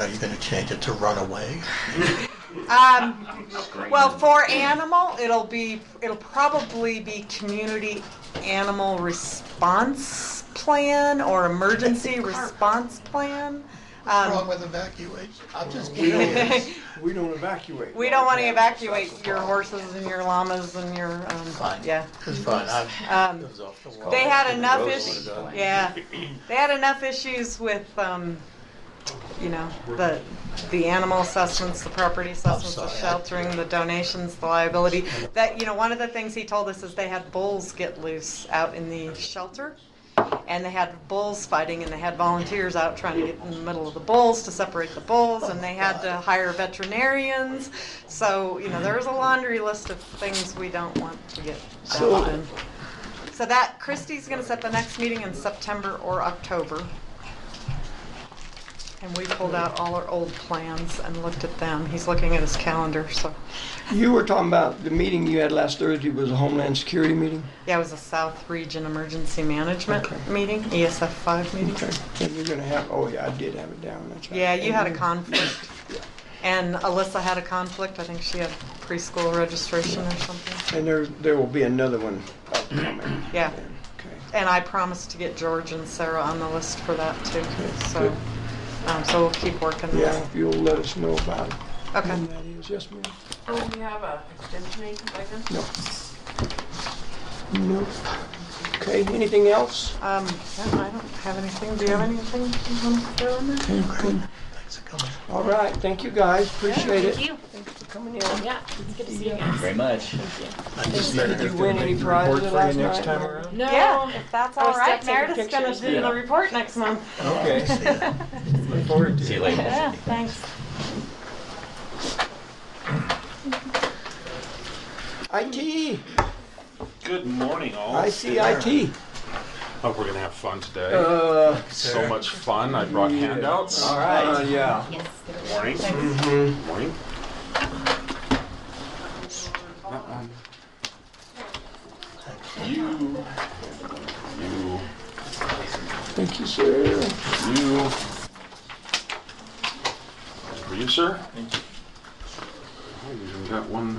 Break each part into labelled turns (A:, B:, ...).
A: Are you going to change it to runaway?
B: Um, well, for animal, it'll be, it'll probably be community animal response plan or emergency response plan.
A: What's wrong
B: Um,
A: with evacuation? I'm just
C: We
A: kidding.
C: don't, we don't evacuate.
B: we don't want to evacuate your horses and your llamas and your, um,
A: Fine.
B: yeah.
A: It's fine. I'm,
B: Um,
A: it was off the wall.
B: They had enough
C: Rose
B: issues,
C: wanted that.
B: yeah, they had enough issues with, um, you know, the, the animal assessments, the property assessments, the
A: sorry, I-
B: sheltering, the donations, the liability. That, you know, one of the things he told us is they had bulls get loose out in the shelter. And they had bulls fighting and they had volunteers out trying to get in the middle of the bulls to separate the bulls and they had to hire veterinarians. So, you know, there was a laundry list of things we don't want to get
C: So-
B: down in. So that, Christie's gonna set the next meeting in September or October. And we pulled out all our old plans and looked at them. He's looking at his calendar, so,
D: You were talking about the meeting you had last Thursday was a Homeland Security meeting?
B: yeah, it was a South Region Emergency Management
D: Okay.
B: meeting, ESF five meeting.
D: Okay. And you're gonna have, oh yeah, I did have it down, that's right.
B: Yeah, you had a conflict. And Alyssa had a conflict. I think she had preschool registration or something.
D: And there, there will be another one upcoming.
B: Yeah.
D: Okay.
B: And I promised to get George and Sarah on the list for that too, so,
D: good.
B: um, so we'll keep working
D: Yeah,
B: there.
D: if you'll let us know about it.
B: Okay.
D: When that is, yes ma'am?
E: Oh, Do we have a extension agent like this?
D: No. Nope. Okay, anything else?
B: Um, yeah, I don't have anything. Do you have anything you want to throw in there?
A: Thanks for coming.
D: All right, thank you guys, appreciate it.
F: Thank you.
D: for Coming in.
F: Yeah, it's good to see you guys.
G: Very much.
A: I just needed
D: Did
A: to
D: you win any prizes
C: Report for
D: last
C: you
D: night?
C: next time around?
F: No.
B: Yeah, if that's
F: I
B: all
F: was
B: right,
F: still taking
B: Meredith's gonna
F: pictures.
B: do the report next month.
C: Okay.
A: see ya.
C: Look forward to it.
G: See you later.
B: Yeah, thanks.
D: IT,
H: Good morning, all.
D: I see IT.
H: Hope we're gonna have fun today.
D: Uh,
H: so much fun. I brought handouts.
D: all right. Yeah.
H: Good morning.
C: Mm-hmm.
H: Good morning. You. You.
D: Thank you, sir.
H: You. For you, sir. Thank you. We got one.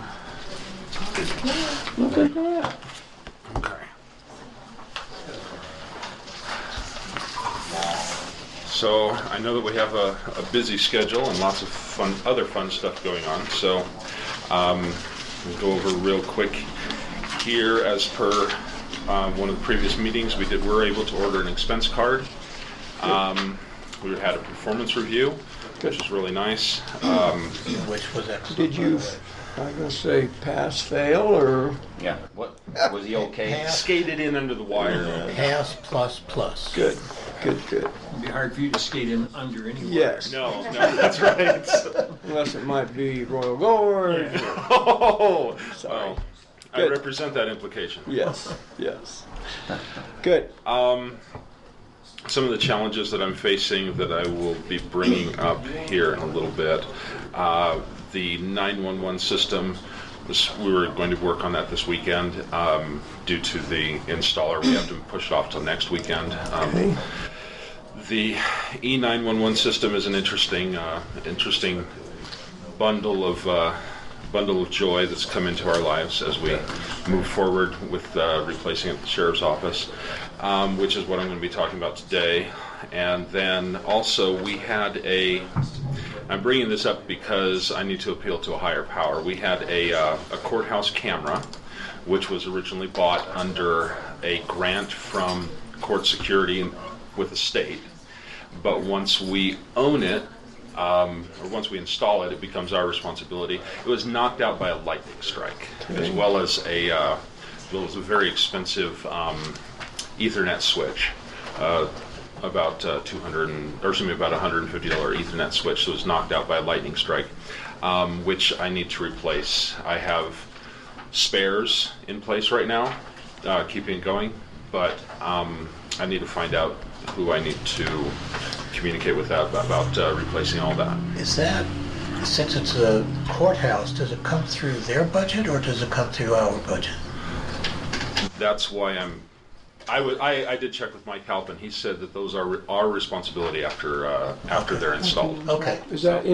D: Look at that.
H: Okay. So I know that we have a, a busy schedule and lots of fun, other fun stuff going on. So um, we'll go over real quick here. As per uh, one of the previous meetings, we did were able to order an expense card. Um, we had a performance review, which was really nice. Um,
A: Which was excellent.
D: Did you,
A: by the way.
D: I was gonna say pass, fail, or?
G: Yeah. What was he okay?
A: Pass,
H: skated in under the wire.
A: pass plus plus.
D: Good, good, good.
I: It'd be hard for you to skate in under anyway.
D: Yes,
H: No, no, that's right.
D: unless it might be Royal Gorge.
H: Oh,
D: Sorry.
H: well, I
D: Good.
H: represent that implication.
D: Yes, yes. Good.
C: Uh,
H: Some of the challenges that I'm facing that I will be bringing up here in a little bit. Uh, the 911 system, was, we were going to work on that this weekend. Um, due to the installer, we have to push it off till next weekend. Um,
D: Okay.
H: The E E911 system is an interesting, uh, interesting bundle of uh, bundle of joy that's come into our lives as we move forward with uh, replacing the sheriff's office, um, which is what I'm going to be talking about today. And then also we had a. I'm bringing this up because I need to appeal to a higher power. We had a, uh, a courthouse camera, which was originally bought under a grant from court security with the state. But once we own it, um, or once we install it, it becomes our responsibility. It was knocked out by a lightning strike, as well as a, uh, well, it was a very expensive um, Ethernet switch, uh, about uh, 200 and, or excuse me, about 150 dollar Ethernet switch that was knocked out by a lightning strike, um, which I need to replace. I have spares in place right now, uh, keeping it going, but um, I need to find out who I need to communicate with that about uh, replacing all that.
A: Is that, since it's a courthouse, does it come through their budget or does it come through our budget?
H: That's why I'm I would, I, I did check with Mike Halpin. He said that those are our responsibility after, uh, after they're installed.
A: Okay.
D: Is that